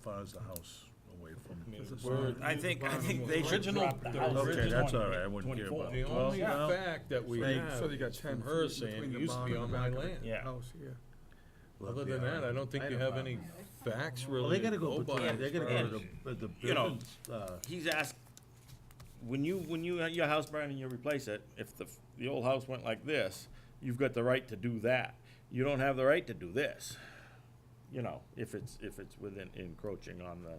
far is the house away from? We're- I think, I think they should Original- drop the the house. Okay, original that's all right, I wouldn't care 24. about The it. The Well, only no. fact that we So you- have so you got is 10 from her feet saying, between it the used to be barn on and my the back of land. Yeah. House, yeah. Well, Other than yeah. that, I don't think I you don't have any facts Well, they really gotta to go go by. between, they gotta go to the, the you know, buildings, uh, He's asked, when you, when you, your house burned and you replace it, if the, the old house went like this, you've got the right to do that. You don't have the right to do this, you know, if it's, if it's within encroaching on the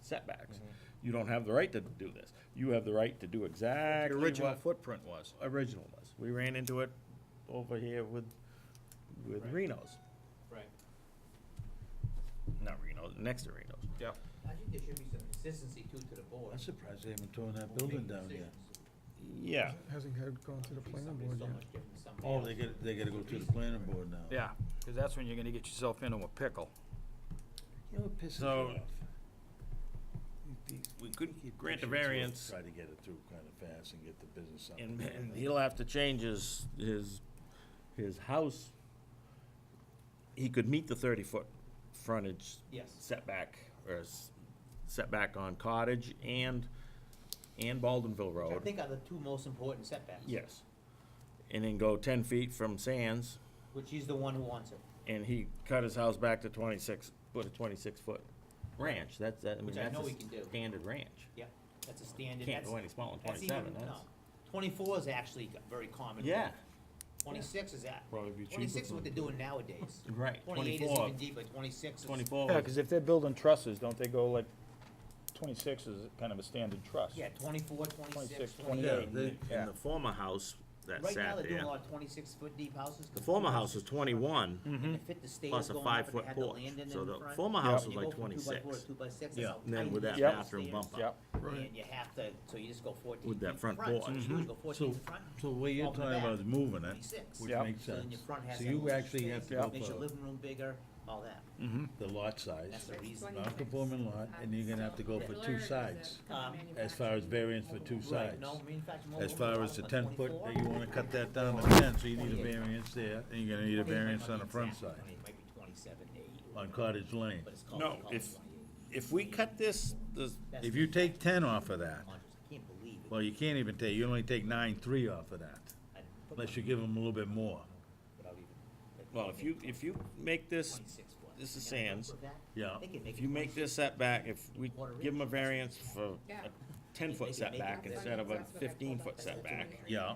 setbacks. You don't have the right to do this. You have the right to do The exactly original what footprint was. original was. We ran into it over here with, with Right. Reno's, Right. not Reno's, next to Reno's. Yep. I think there should be some consistency too to the board. I'm surprised they haven't torn that Who building made down yet. decisions? Yeah, Hasn't had gone to the planning Somebody's board so yet. much different than somebody Oh, else. they gotta, they gotta go to the planning board now. Yeah, because that's when you're gonna get yourself into a pickle. You know what pisses me So- off? These- we could these grant a pushing to variance Try to get it through kinda fast and get the business up. And, and he'll have to change his, his, his house. He could meet the thirty-foot frontage Yes, setback, or s- setback on Cottage and, and Baldenville which I Road. think are the two most important setbacks. Yes. And then go ten feet from Sands, Which he's the one who wants it, and he cut his house back to twenty-six, put a twenty-six-foot ranch, that's, that, I mean, Which I that's know a we can do. standard ranch. yeah, that's a standard, Can't that's, go any smaller than that's even, twenty-seven, no. that's. Twenty-four is actually g- very common. Yeah, Twenty-six is that, Probably be cheaper twenty-six is for what they're doing nowadays. right, Twenty-eight is even twenty-four, deep, but twenty-six is, twenty-four. Yeah, was- because if they're building trusses, don't they go like, twenty-six is kind of a standard truss? yeah, twenty-four, twenty-six, 26, Yeah, twenty-eight. they, Yeah. And the former house that Right now, sat they're doing there, a lot of twenty-six foot deep houses. 'cause the former people- house was twenty-one Mm-hmm. And to fit the stairs plus a going up, and five-foot they had the porch. land in So in the front. former house And was you like go from two by four twenty-six. to two by six, that's Yeah. how And then tight with these that stairs bathroom are. bump up. Yep, And you have to, so you just go fourteen. With that feet front So porch. you usually go fourteen So- to front, So what you're Open the talking about is back. moving it, twenty-six. which Yep. makes So then sense. your front has So that you little actually have to space, go Makes your for living room bigger, all that. the lot That's size, the reason. non-conforming lot, and you're gonna have to go for two sides, as far as variance for two Right, sides. no, manufactured mobile As home far park, as the a ten foot, 24. that you wanna cut that down to ten, so you need a 28. variance there, and you're gonna need a 28 might variance be on the front exact, side, 28, might be twenty-seven to eight, on Cottage Lane. but it's called. No, it's called if- 28. If we cut this, the, That's If you the- take ten off of that, I can't believe it. well, you can't even take, you only take nine, three off of that, I didn't put unless my- you give them a little bit more. without even- like, well, if you, if you make this, 26 foot. this is They got a Sands. roof of that? Yeah. They can make if it you make 26. this setback, if we Water give in. them a variance for Yeah. a ten-foot setback instead of a fifteen-foot setback Yeah.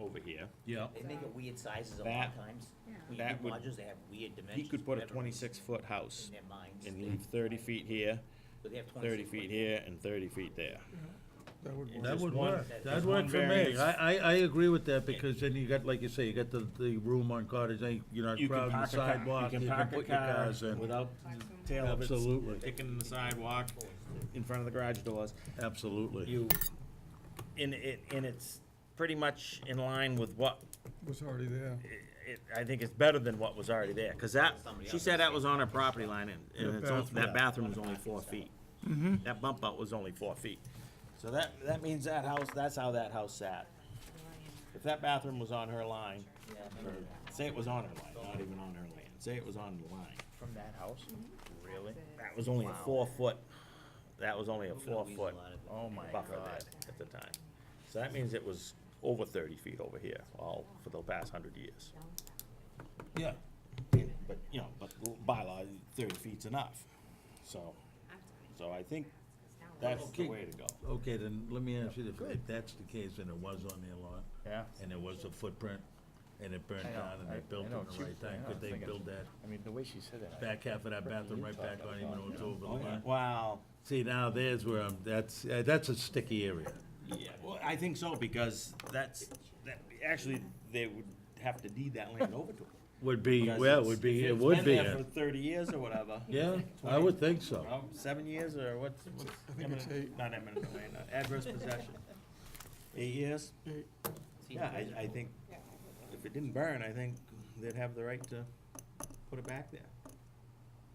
over here, Yeah. They make it weird sizes a lot That- of times. When you that do would- modules, they have weird he dimensions. could put a for whatever reason twenty-six-foot house In their minds. and they- leave thirty feet here, but they have thirty 26 feet foot. here, and thirty feet there. That would That work. Just would one- work, that'd just one work for me, variance. I, I, I agree with that, because then you got, like you say, you got the, the room on Cottage Lane, you're not You can crowding the park a car- you sidewalk, can you can park a put your car cars in, Without tail of it absolutely, sticking in the sidewalk, in front of the garage doors. absolutely. You, and it, and it's pretty much in line with what, Was already there. i- it, I think it's better than what was already there. Cause that, she said that was on her property line and, and it's, on- that bathroom was only four feet. Mm-hmm. That bump out was only four feet. So that, that means that house, that's how that house sat. If that bathroom was on her line, Yeah, or say it was on her line, not even on her land, say it was on the line. from that house, really? That was only a four foot, that was only a we're gonna four lose a foot lot of- Oh, my buffer God. there at the time. So that means it was over thirty feet over here, all for the past hundred years. Yeah. But, you know, but the bylaw, thirty feet's enough, so, so I think that's the Okay. way to go. Okay, then let me ask you this, if that's the case, and it was on their lot, Yeah. and it was a footprint, and it burned I know, down, and I- they built I it know, the she- right I time, know, I'm could they thinking- build that I mean, the way she said it. I- back half of that bathroom right back on, even though it's over Oh, the lot? Wow, See, now there's where I'm, that's, uh, that's a sticky area. yeah, well, I think so, because that's, that, actually, they would have to deed that land over to them. Would be, Because well, it it's- would be, if it it's would been be, there a- For thirty years or whatever. yeah, I would think so. Well, Oh, Seven years or what's? what's think it's eminent- eight. Not eminent domain, uh, adverse possession. Eight years? seen Yeah, it. I, I think if it didn't burn, I think they'd have the right to put it back there.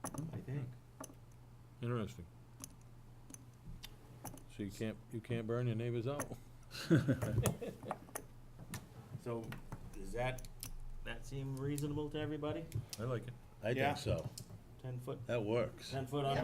I think. Interesting. So you can't, you can't burn your neighbors out? So does that, that seem reasonable to everybody? I like it. I Yeah. think so. Ten foot, That works. ten foot on